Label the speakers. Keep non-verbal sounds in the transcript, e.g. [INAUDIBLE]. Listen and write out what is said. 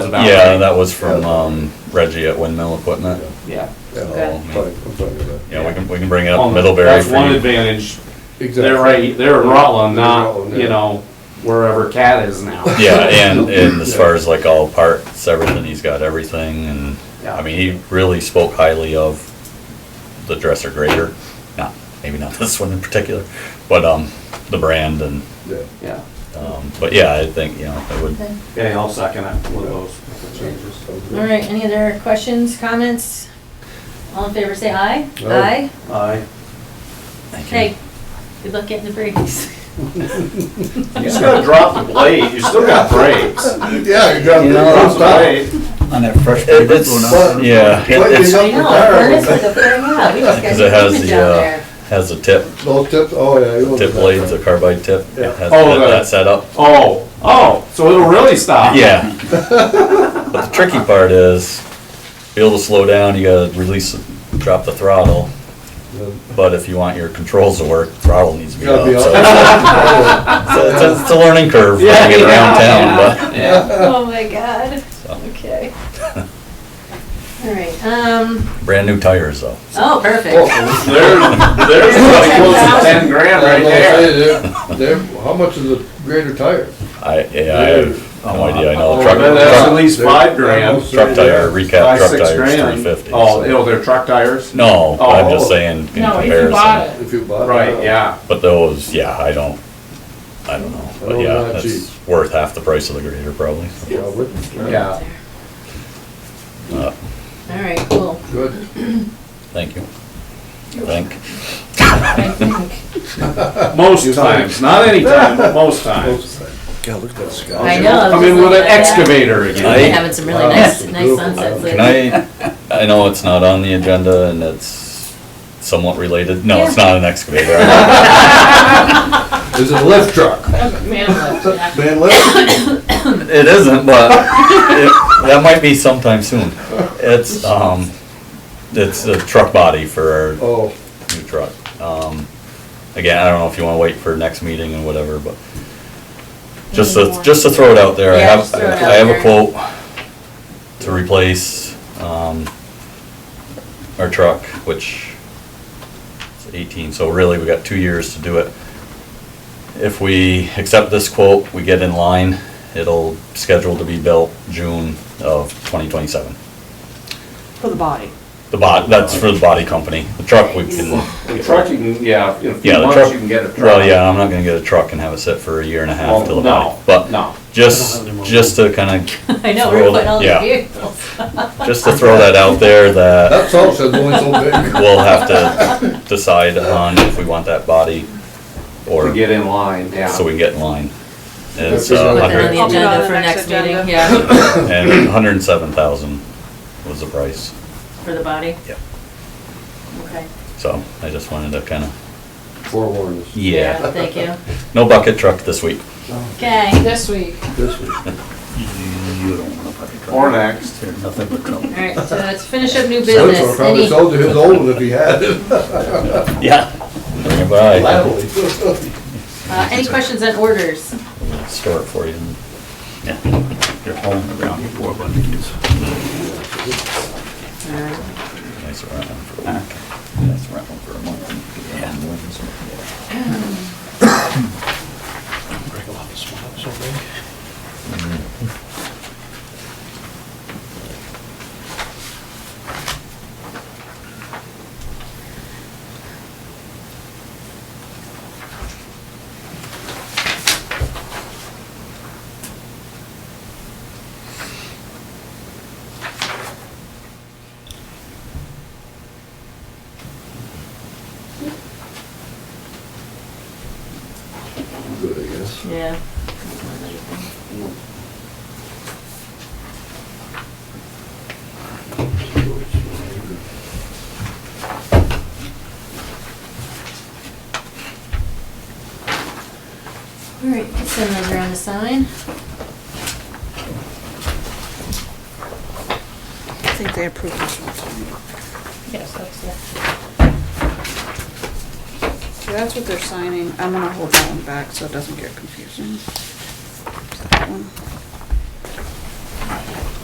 Speaker 1: about.
Speaker 2: Yeah,
Speaker 1: right?
Speaker 2: that was from um, Reggie at Windmill Equipment.
Speaker 1: Yeah.
Speaker 3: Yeah,
Speaker 2: Okay.
Speaker 3: I'm fine, I'm fine with that.
Speaker 2: Yeah, we can, we can bring it up
Speaker 1: On the-
Speaker 2: Middlebury
Speaker 1: That's
Speaker 2: for
Speaker 1: one
Speaker 2: you.
Speaker 1: advantage.
Speaker 3: Exactly.
Speaker 1: They're right, they're in Rutland,
Speaker 3: They're
Speaker 1: not,
Speaker 3: Rutland, yeah.
Speaker 1: you know, wherever Cat is now.
Speaker 2: [LAUGHS] Yeah,
Speaker 1: [LAUGHS]
Speaker 2: and, and as far as like all parts, everything, he's got everything and, I
Speaker 1: Yeah.
Speaker 2: mean, he really spoke highly of the dresser grater. Not, maybe not [LAUGHS] this one in particular, but, um, the brand and,
Speaker 3: Yeah.
Speaker 1: Yeah.
Speaker 2: um, but yeah, I think, you know, it would,
Speaker 4: Okay.
Speaker 1: Okay, I'll second it with those with the changes.
Speaker 3: Sounds
Speaker 4: All
Speaker 3: good.
Speaker 4: right, any other questions, comments? All in favor, say aye.
Speaker 1: Oh,
Speaker 3: Aye.
Speaker 1: Aye.
Speaker 2: thank you.
Speaker 4: Okay, good luck getting the brakes.
Speaker 1: [LAUGHS] You just gotta drop the blade, you still got brakes.
Speaker 3: [LAUGHS] Yeah, you got,
Speaker 2: You know,
Speaker 1: Drop
Speaker 3: don't
Speaker 1: the
Speaker 3: stop.
Speaker 1: blade.
Speaker 5: On that fresh
Speaker 2: It-
Speaker 5: paper
Speaker 2: It's,
Speaker 5: going out.
Speaker 2: yeah,
Speaker 3: Why
Speaker 2: it-
Speaker 3: you
Speaker 2: it's,
Speaker 3: got-
Speaker 4: I know, furnace with a flare out, we just
Speaker 2: [LAUGHS]
Speaker 4: got
Speaker 2: 'Cause it has
Speaker 4: human
Speaker 2: the,
Speaker 4: down
Speaker 2: uh,
Speaker 1: [LAUGHS]
Speaker 4: there.
Speaker 2: has a tip,
Speaker 3: Those tips, oh, yeah. you want
Speaker 2: tip
Speaker 3: that.
Speaker 2: blades, a carbide tip.
Speaker 3: Yeah.
Speaker 2: It has
Speaker 1: Oh,
Speaker 2: that-
Speaker 1: the-
Speaker 2: that setup.
Speaker 1: Oh, oh, so it'll really stop?
Speaker 2: Yeah. [LAUGHS] But the tricky part is, be able to slow down, you gotta release, drop the throttle. But if you want your controls to work, throttle needs to be up.
Speaker 3: Gotta be
Speaker 2: So
Speaker 1: [LAUGHS]
Speaker 2: so it's a- it's a learning curve when
Speaker 1: Yeah,
Speaker 2: you get around
Speaker 1: yeah,
Speaker 2: town, but.
Speaker 1: Yeah.
Speaker 4: Oh my god,
Speaker 2: [LAUGHS]
Speaker 4: okay. All right, um,
Speaker 2: Brand new tires though.
Speaker 4: oh, perfect.
Speaker 3: Oh,
Speaker 1: There's, there's probably close to ten grand right
Speaker 3: I'm gonna
Speaker 1: there.
Speaker 3: say they're- they're- how much is a grader tire?
Speaker 2: I, yeah, I have no idea. I know
Speaker 1: Oh,
Speaker 2: the truck,
Speaker 1: that- That's at
Speaker 2: truck,
Speaker 1: least five grand.
Speaker 2: truck tire, recap
Speaker 1: Five,
Speaker 2: truck
Speaker 1: six
Speaker 2: tires,
Speaker 1: grand.
Speaker 2: three fifty.
Speaker 1: Oh, oh, they're truck tires?
Speaker 2: No, but I'm
Speaker 1: Oh.
Speaker 2: just saying in
Speaker 6: No, if you bought
Speaker 2: comparison.
Speaker 6: it.
Speaker 3: If you bought it.
Speaker 1: Right, yeah.
Speaker 2: But those, yeah, I don't, I don't know. But
Speaker 3: Oh,
Speaker 2: yeah,
Speaker 3: not
Speaker 2: that's
Speaker 3: cheap.
Speaker 2: worth half the price of the grader probably.
Speaker 3: Yeah, wouldn't it?
Speaker 1: Yeah.
Speaker 2: Uh,
Speaker 4: All right, cool.
Speaker 3: Good.
Speaker 2: Thank you. Thank.
Speaker 4: I think,
Speaker 1: Most times, not any time, but most times.
Speaker 3: Both
Speaker 5: God, look at that sky.
Speaker 4: I know. I was
Speaker 1: Come in
Speaker 4: just
Speaker 1: with an
Speaker 4: looking at that.
Speaker 1: excavator
Speaker 4: We're
Speaker 1: again.
Speaker 2: I-
Speaker 4: having some really
Speaker 3: Wow.
Speaker 4: nice, nice sunsets
Speaker 2: [LAUGHS] Can
Speaker 4: lately.
Speaker 2: I, I know it's not on the agenda and it's somewhat related. No, it's
Speaker 4: Yeah.
Speaker 2: not an excavator. [LAUGHS] I
Speaker 3: sides. Is it a lift truck?
Speaker 6: Oh, Man, that's-
Speaker 1: [LAUGHS]
Speaker 3: Man lift?
Speaker 2: don't- It isn't, but it- that might be sometime soon. It's, um, it's a truck body for our
Speaker 3: Oh,
Speaker 2: new truck. Um, again, I don't know if you wanna wait for next meeting and whatever, but just to, just to throw it out there, I
Speaker 4: Yeah,
Speaker 2: have,
Speaker 4: just throw it
Speaker 2: I
Speaker 4: out
Speaker 2: have a
Speaker 4: there.
Speaker 2: quote to replace, um, our truck, which is eighteen, so really, we got two years to do it. If we accept this quote, we get in line, it'll scheduled to be built June of twenty twenty-seven.
Speaker 7: For the body.
Speaker 2: The bot, that's for the body company, the truck we can
Speaker 1: The truck, you can, yeah, in a few
Speaker 2: Yeah, the
Speaker 1: months,
Speaker 2: truck.
Speaker 1: you can get a truck.
Speaker 2: Well, yeah, I'm not gonna get a truck and have it sit for a year and a half
Speaker 1: Well,
Speaker 2: till
Speaker 1: no,
Speaker 2: the body, but
Speaker 1: No.
Speaker 2: just, just to kinda,
Speaker 4: [LAUGHS] I know, we're putting all the
Speaker 2: Yeah.
Speaker 4: vehicles.
Speaker 2: just to throw that out there that
Speaker 3: that salt says only so big.
Speaker 2: we'll
Speaker 1: [LAUGHS]
Speaker 2: have to decide on if we want that body
Speaker 1: To
Speaker 2: or,
Speaker 1: get in line, yeah.
Speaker 2: so we can get in line. And It's
Speaker 3: Put it
Speaker 2: a
Speaker 3: on
Speaker 4: Put that on
Speaker 2: hundred,
Speaker 4: the
Speaker 7: I'll put it on
Speaker 4: agenda
Speaker 7: the
Speaker 4: for next
Speaker 7: next
Speaker 4: meeting,
Speaker 7: agenda.
Speaker 4: yeah,
Speaker 2: and hundred and seven thousand was the price,
Speaker 4: for the body.
Speaker 2: Yep.
Speaker 4: Okay.
Speaker 2: so I just wanted to kinda,
Speaker 3: Forewarned us
Speaker 2: yeah,
Speaker 4: Thank you.
Speaker 2: no bucket truck this week.
Speaker 4: Okay,
Speaker 6: This week.
Speaker 3: this week.
Speaker 5: You don't wanna put a truck.
Speaker 1: Or next.
Speaker 5: There's nothing but trouble.
Speaker 4: all right, so let's finish up new
Speaker 3: Spencer
Speaker 4: business.
Speaker 3: probably
Speaker 4: Any-
Speaker 3: sold his old one if he had it.
Speaker 2: Yeah. Bring it by,
Speaker 3: Gladly.
Speaker 4: Uh, any questions on orders?
Speaker 2: store it for you.
Speaker 5: Yeah. You're hauling around your four by these.
Speaker 2: Nice around for a week.
Speaker 5: That's around for a month. Yeah.
Speaker 3: [LAUGHS] Good, I guess.
Speaker 4: Yeah. All right, send those around to sign.
Speaker 7: I think they approved this one.
Speaker 4: Yes, that's it.
Speaker 7: So that's what they're signing. I'm gonna hold that one back so it doesn't get confusing. That one.